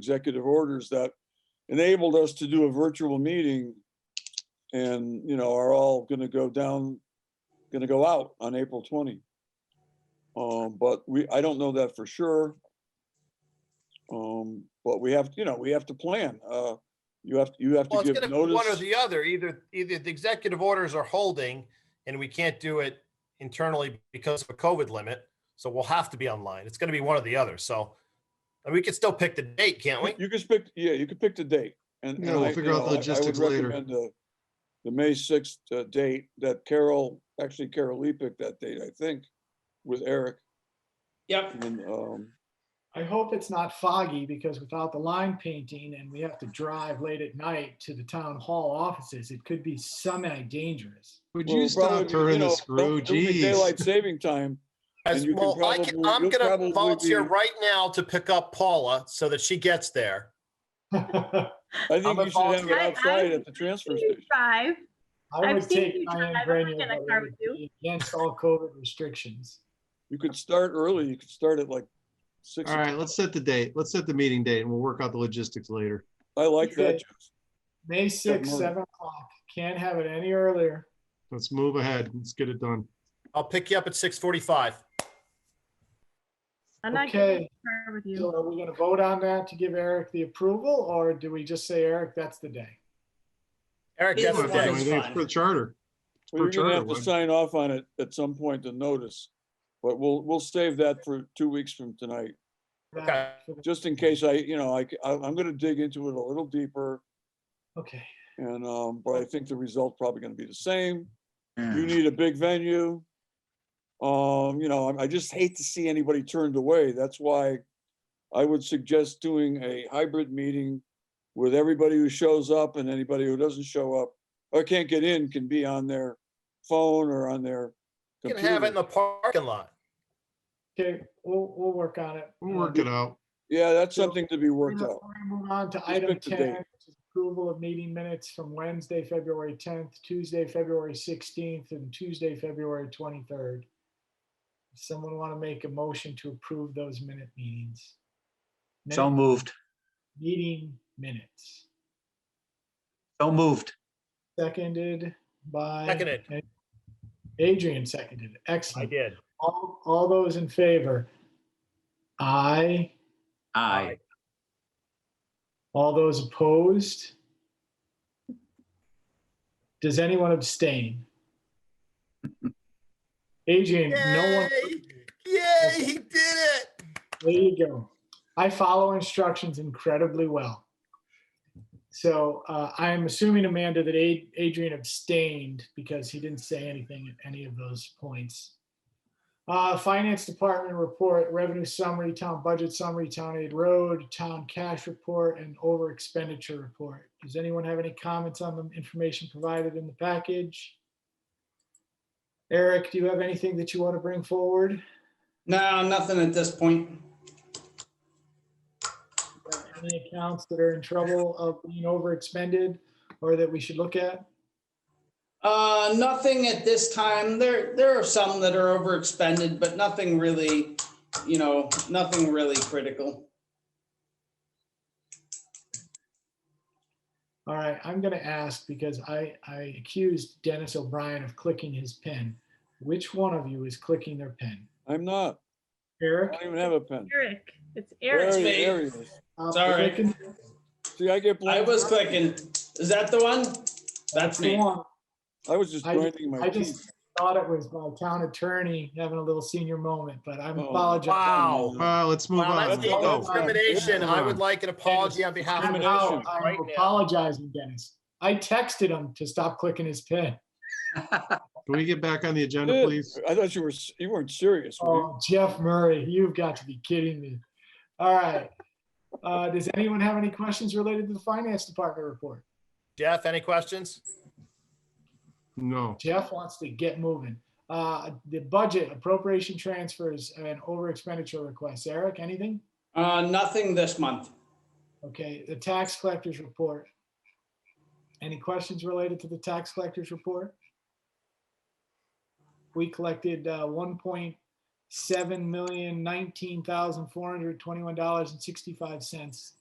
executive orders that enabled us to do a virtual meeting and, you know, are all gonna go down, gonna go out on April 20. Um, but we, I don't know that for sure. Um, but we have, you know, we have to plan. Uh, you have, you have Well, to it's give gonna be one or notice. the other. Either, either the executive orders are holding and we can't do it internally because of a COVID limit. So we'll have to be online. It's gonna be one or the other. So and we can still pick the date, can't we? You could pick, yeah, you could pick the date and. Yeah, and we'll I- figure you out the know, I- I would logistics later. recommend The the May sixth uh, date that Carol, actually Carol Lee picked that date, I think, with Eric. Yep, And, um, I hope it's not foggy because without the line painting and we have to drive late at night to the town hall offices, it could be semi-dangerous. Would well, you stop probably, turning the know, screw? it'll be Jeez. Daylight saving time. As And you can well, I can, probably- I'm you'll gonna probably volunteer be- right now to pick up Paula so that she gets there. I I think you should have a it volunteer. I- outside I've at the transfer seen station. you Drive. I've would seen take you Diane drive. I'm not Grenier, in a but it car would with you. be Against all COVID restrictions. You could start early. You could start at like six. All right, let's set the date. Let's set the meeting date and we'll work out the logistics later. I like that. Okay. May 6th, morning. 7 o'clock. Can't have it any earlier. Let's move ahead. Let's get it done. I'll pick you up at six forty-five. I'm not getting in Okay. a car with So you. are we going to vote on that to give Eric the approval or do we just say, Eric, that's the day? Eric, Either that's the We're not doing one. day. anything For the charter. Well, You're gonna charter have to one. sign off on it at some point to notice. But we'll, we'll save that for two weeks from tonight. Okay. just in case I, you know, I, am gonna dig into it a little deeper Okay. and, um, but I think the result's probably gonna be the same. You need a big venue. Um, you know, I, I just hate to see anybody turned away. That's why I would suggest doing a hybrid meeting with everybody who shows up and anybody who doesn't show up or can't get in can be on their phone or on their You can have it computer. in the parking lot. Okay, we'll, we'll work on it. We'll Uh, work it out. Yeah, that's something to be worked out. Before we Move on to item pick the date. 10, which is approval of meeting minutes from Wednesday, February 10th, Tuesday, February 16th, and Tuesday, February 23rd. Someone want to make a motion to approve those minute meetings? So Minute- moved, Meeting minutes, so moved. seconded by. Seconded. Adrian seconded. it. Excellent. did. All, all those in favor? Aye. Aye. All those opposed? Does anyone abstain? Adrian, no one, Yay, Yay, he did it. there you go. I follow instructions incredibly well. So uh, I am assuming, Amanda, that Ad- Adrian abstained because he didn't say anything at any of those points. Uh, Finance Department report, revenue summary, town budget summary, town aid road, town cash report, and over expenditure report. Does anyone have any comments on the information provided in the package? Eric, do you have anything that you want to bring forward? no, nothing at this point. any accounts that are in trouble of being overexpended or that we should look at? Uh, nothing at this time. There, there are some that are overexpended, but nothing really, you know, nothing really critical. All right, I'm gonna ask because I, I accused Dennis O'Brien of clicking his pen. Which one of you is clicking their pen? I'm not. I Eric? don't even have a pen. Eric, it's There Eric. he- me. there he is. uh, Sorry. clicking- See, I get I blamed. was clicking. Is that the one? That's Go me. on. I was just I- grinding my I teeth. just thought it was my town attorney having a little senior moment, but I'm Oh, apologizing. Wow. Uh, let's move Wow, on. Oh, that's Let's the go. discrimination. I would like an apology on behalf of I'm the out. nation I'm right now. apologizing, Dennis. I texted him to stop clicking his pen. Can we get back on the agenda, Good. please? I thought you were, s- you weren't serious. were you? Oh, Jeff Murray, you've got to be kidding me. All right. Uh, Does anyone have any questions related to the finance department report? Jeff, any questions? No. Jeff wants to get moving. Uh, The budget appropriation transfers and over expenditure requests. Eric, anything? Uh, nothing this month. Okay, the tax collector's report. Any questions related to the tax collector's report? We collected uh, 1.7 million, $19,421.65